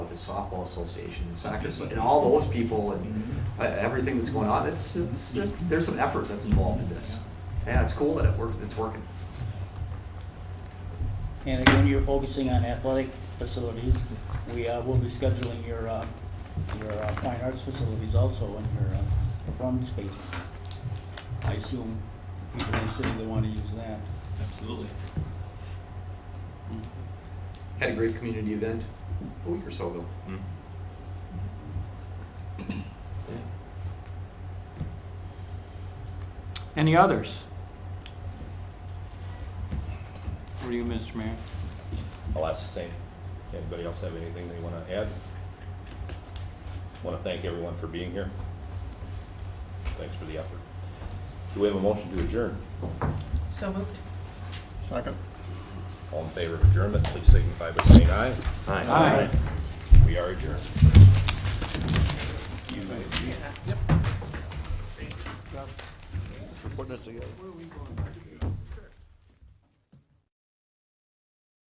the softball association, the soccer, asso- and all those people and uh, everything that's going on, it's, it's, it's, there's some effort that's involved in this. Yeah, it's cool that it worked, it's working. And again, you're focusing on athletic facilities. We uh, will be scheduling your, uh, your uh, fine arts facilities also and your uh, performance space. I assume people in the city, they want to use that. Absolutely. Had a great community event a week or so ago. Any others? What do you, Mr. Mayor? I'll ask the same. Anybody else have anything they want to add? Want to thank everyone for being here. Thanks for the effort. Do we have a motion to adjourn? So moved. All in favor of adjournment, please signify by saying aye. Aye. We are adjourned. for putting it together.